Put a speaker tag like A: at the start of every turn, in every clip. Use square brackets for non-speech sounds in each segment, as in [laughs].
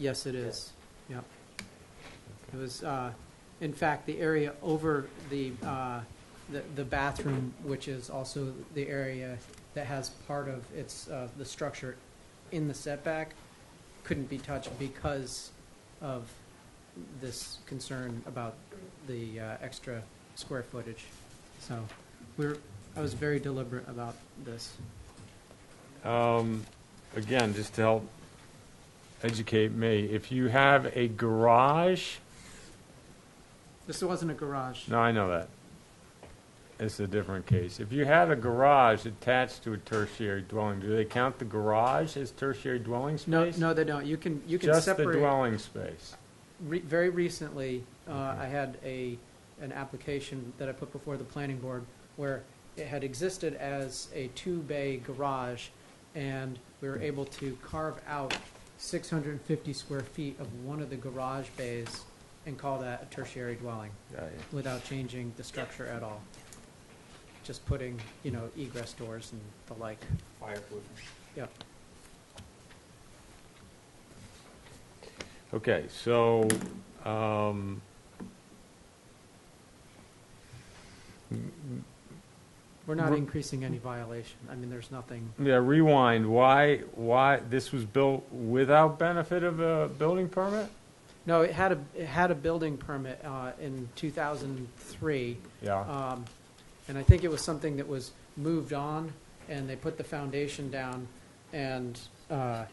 A: Yes, it is. Yep. It was, uh, in fact, the area over the, uh, the- the bathroom, which is also the area that has part of its, uh, the structure in the setback, couldn't be touched because of this concern about the uh, extra square footage. So we're, I was very deliberate about this.
B: Um, Again, just to help educate me, if you have a garage,
A: This wasn't a garage.
B: no, I know that. It's a different case. If you had a garage attached to a tertiary dwelling, do they count the garage as tertiary dwelling
A: No,
B: space?
A: no, they don't. You can, you can
B: Just the
A: separate.
B: dwelling space.
A: Re- Very recently, uh,
B: Okay.
A: I had a, an application that I put before the planning board where it had existed as a two-bay garage, and we
B: Hmm.
A: were able to carve out 650 square feet of one of the garage bays and call that a tertiary dwelling without changing the structure at all. Just putting, you know, egress doors and the like.
C: fireproofing.
A: Yep.
B: Okay, so, um,
A: We're not
B: We're-
A: increasing any violation. I mean, there's nothing.
B: yeah, rewind, why, why, this was built without benefit of a building permit?
A: No, it had a, it had a building permit uh, in 2003,
B: Yeah,
A: um, and I think it was something that was moved on, and they put the foundation down, and uh,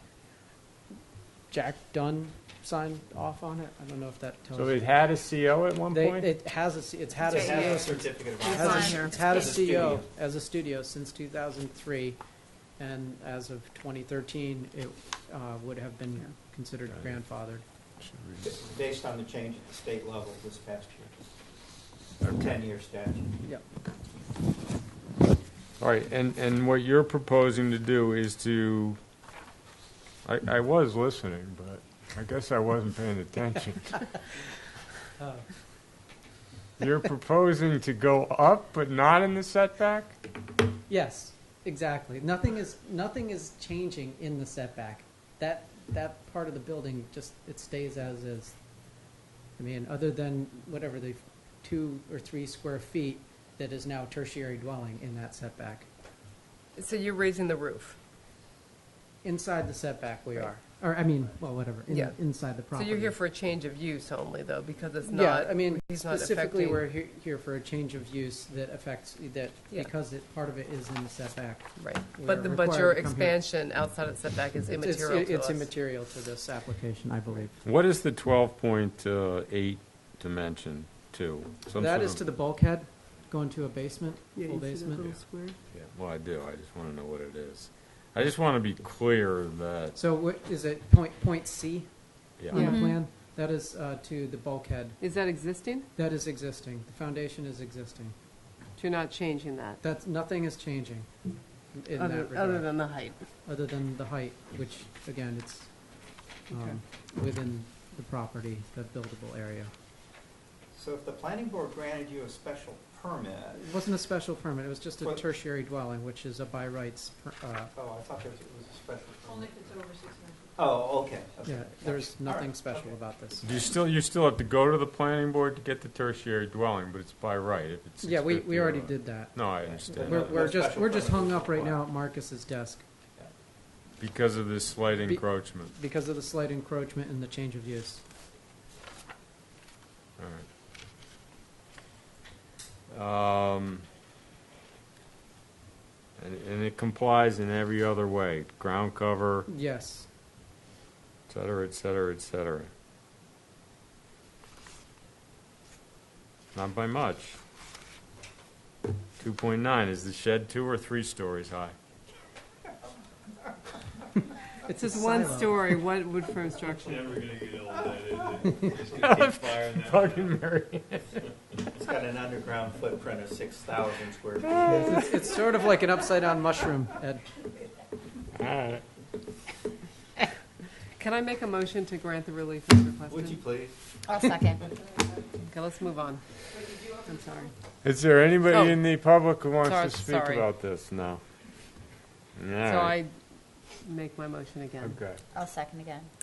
A: Jack Dunn signed off on it. I don't know if that tells.
B: so it had a CO at one
A: They,
B: point?
A: it has a, c- it's had a
D: It's right
A: CO
D: here.
C: a certificate of
A: has a-
D: It's on here.
A: It's had a
D: As
C: a
A: CEO
C: studio.
A: as a studio since 2003, and as of 2013, it uh, would have been considered
B: Got it.
A: grandfathered.
C: This is based on the change at the state level this past year. Ten-year statute.
A: Yep.
B: All right, and, and what you're proposing to do is to, I, I was listening, but I guess I wasn't
A: [laughs]
B: paying attention.
A: Uh,
B: You're proposing to go up, but not in the setback?
A: Yes, exactly. Nothing is, nothing is changing in the setback. That, that part of the building just, it stays as is. I mean, other than whatever the two or three square feet that is now tertiary dwelling in that setback.
D: So you're raising the roof.
A: Inside the setback we are, or I mean, well, whatever, in,
D: Yeah.
A: inside the
D: So
A: property.
D: you're here for a change of use only, though, because it's
A: Yeah,
D: not,
A: I mean,
D: he's not
A: specifically,
D: affecting-
A: we're he- here for a change of use that affects, that,
D: Yeah.
A: because it, part of it is in the setback.
D: right.
A: we're
D: But, the- but
A: required
D: your
A: to come here.
D: expansion outside of the setback is
A: It's- it's-
D: immaterial to
A: It's
D: us.
A: immaterial to this application, I believe.
B: What is the 12.8 dimension to? Some
A: That
B: sort
A: is
B: of-
A: to the bulkhead, going to a basement,
E: Yeah,
A: full
E: you see that
A: basement.
E: little square?
B: Yeah, Well, I do, I just want to know what it is. I just want to be clear that,
A: So what, is it point, point C on the
B: yeah,
E: Yeah. Mhm.
A: plan? That is uh, to the bulkhead.
D: Is that existing?
A: That is existing. The foundation is existing.
D: You're not changing that,
A: That's, nothing is changing in
D: other,
A: that
D: other
A: regard,
D: than the height.
A: other than the height, which, again, it's um, within the property, the buildable area.
C: So if the planning board granted you a special permit,
A: It wasn't a special permit, it was just a
C: What-
A: tertiary dwelling, which is a by rights, per- uh,
C: oh, I thought there was a special
F: Only
C: permit.
F: if it's over six hundred.
C: Oh, okay. okay.
A: yeah, there's
C: All right,
A: nothing special
C: okay.
A: about this.
B: you still, you still have to go to the planning board to get the tertiary dwelling, but it's by right if it's
A: Yeah, we,
B: 650
A: we
B: or
A: already
B: not.
A: did that.
B: No, I understand.
A: We're,
C: No
A: we're just,
C: special
A: we're just
C: permit
A: hung
C: is
A: up right now
C: required.
A: at Marcus's desk
B: Because of this slight
A: Be-
B: encroachment.
A: because of the slight encroachment and the change of use.
B: All right. Um, and, and it complies in every other way, ground cover,
A: Yes,
B: et cetera, et cetera, et cetera. Not by much. Two point nine, is the shed two or three stories high?
A: it's a
D: Just one
A: silo. [laughs]
D: story, what wood frame structure?
G: Never gonna get all that, is it? Just gonna keep firing that.
B: Fucking Mary.
C: It's got an underground footprint of six thousand square feet.
D: [laughs]
A: It's, it's sort of like an upside down mushroom, Ed.
B: Alright.
D: Can I make a motion to grant the relief as
C: Would you
D: requested?
C: please?
H: I'll second.
D: Okay, let's move on. I'm sorry.
B: Is there
D: Oh.
B: anybody in the public who wants
D: Sorry,
B: to speak
D: sorry.
B: about this? No. All
D: So
B: right.
D: I make my motion again.
B: Okay.
H: I'll second again.